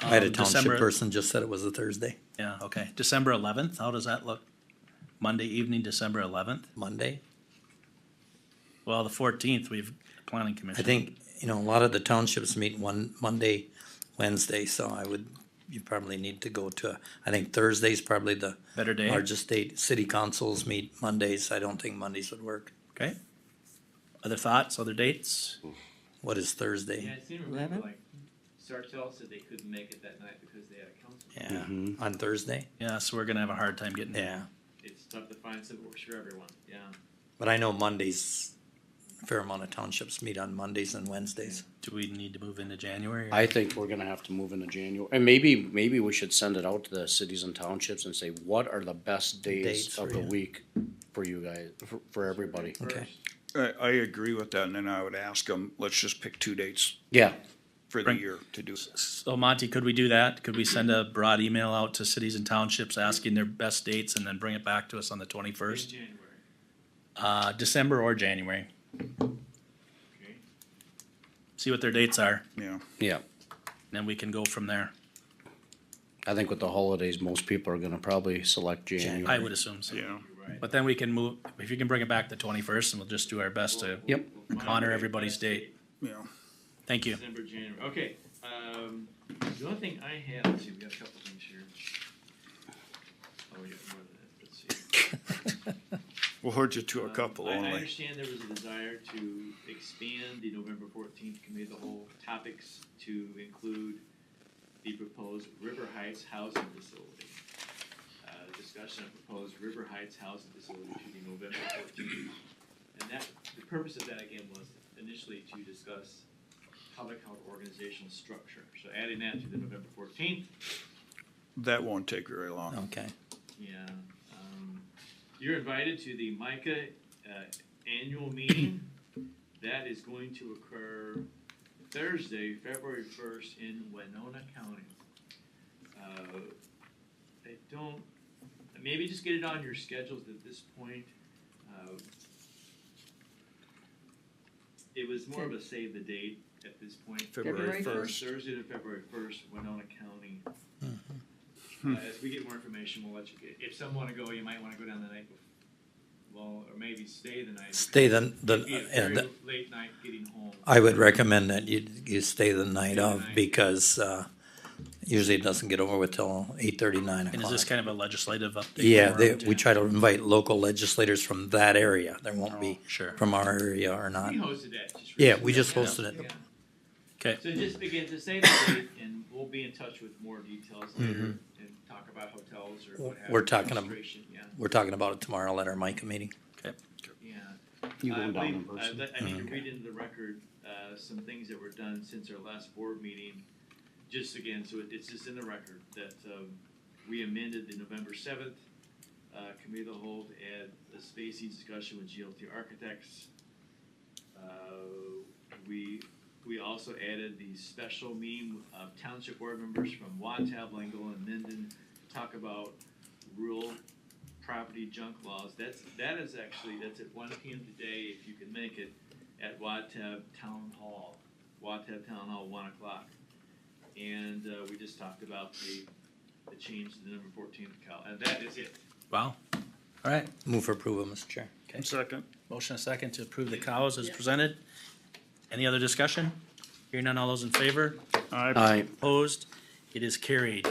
I had a um, township December- person just said it was a Thursday, Yeah, okay. December eleventh, how does that look? Monday evening, December eleventh? Monday. Well, the fourteenth, we've, planning I commission. think, you know, a lot of the townships meet one, Monday, Wednesday, so I would, you probably need to go to, I think Thursday's probably the Better day, largest state, city councils meet Mondays, I don't think Mondays would work. okay? Other thoughts, other dates? What is Yeah, Thursday? I seem to remember, Eleven? like, Sartell said they couldn't make it that night because they had a council. Yeah, Mm-hmm. on Thursday? Yeah, so we're gonna have a hard time getting. Yeah, It's tough to find something that works for everyone, yeah. but I know Mondays, a fair amount of townships meet on Mondays and Wednesdays. Do we need to move into January? or- I think we're gonna have to move into January, and maybe, maybe we should send it out to the cities and townships and say, what are the best Dates days for of the you. week for you guys, for, for everybody? Okay. I, I agree with that, and then I would ask them, let's just pick two dates Yeah, for the Right. year to do this. So Monty, could we do that? Could we send a broad email out to cities and townships asking their best dates and then bring it back to us on the First twenty-first? in January, Uh, December or January, okay? see what their dates are, Yeah, yeah, and then we can go from there. I think with the holidays, most people are gonna probably select I January. would assume so. yeah. You're right. But then we can move, if you can bring it back the twenty-first, and we'll just do our best to, We'll- Yep. we'll find Honor a everybody's best date. Yeah, thank you. December, January, okay. Um, the only thing I had, let's see, we got a couple things here. Oh, we got more than that, let's see. we'll hold you to a Um, couple I- I only. understand there was a desire to expand the November fourteenth committee, of the whole topics to include the proposed River Heights housing facility. Uh, discussion of proposed River Heights housing facility to be November fourteenth. And that, the purpose of that again was initially to discuss public health organizational structure. So adding that to the November fourteenth, That won't take very long. Okay, yeah, um, you're invited to the MICA, uh, annual meeting. That is going to occur Thursday, February first in Winona County. Uh, I don't, maybe just get it on your schedules at this point. Uh, It was more of a save the date at this point. February February first. first. Thursday to February first, Winona County. Uh, Hmm. As we get more information, we'll let you, get- if some wanna go, you might wanna go down the night before. Well, or maybe stay the night. stay the, It'd be a the, yeah, very the- late night getting home. I would recommend that you, you stay the night the of night. because, uh, usually it doesn't get over with till eight thirty, nine And is o'clock. this kind of a legislative update? Yeah, for- they, we try to invite local legislators from that area. There won't be Oh, Sure, from our area or not. We hosted that just. Yeah, we recently. just hosted it. Yeah. okay. So just begin to save the date and we'll be in touch with more details later and talk about hotels or what have you. Mm-hmm. We're talking ab- registration, Yeah, We're talking about it tomorrow at our MICA meeting. yeah. You I going down Uh-huh. believe- in I person? let- I need to Okay. read into the record, uh, some things that were done since our last board meeting. Just again, so it- it's just in the record that, um, we amended the November seventh, uh, committee of the whole to add a spacing discussion with GLT architects. Uh, we, we also added the special meeting of township board members from Watab, Lingle and Minden to talk about rural property junk laws. That's, that is actually, that's at one P M today, if you can make it, at Watab Town Hall. Watab Town Hall, one o'clock. And, uh, we just talked about the, the change to the number fourteen Cal, and that is it. Wow. All right, Move for approval, Mr. Chair. Second, motion a second to approve the cows as presented. Any other Uh, discussion? Hearing none, all those in favor? I I, Opposed? It is carried.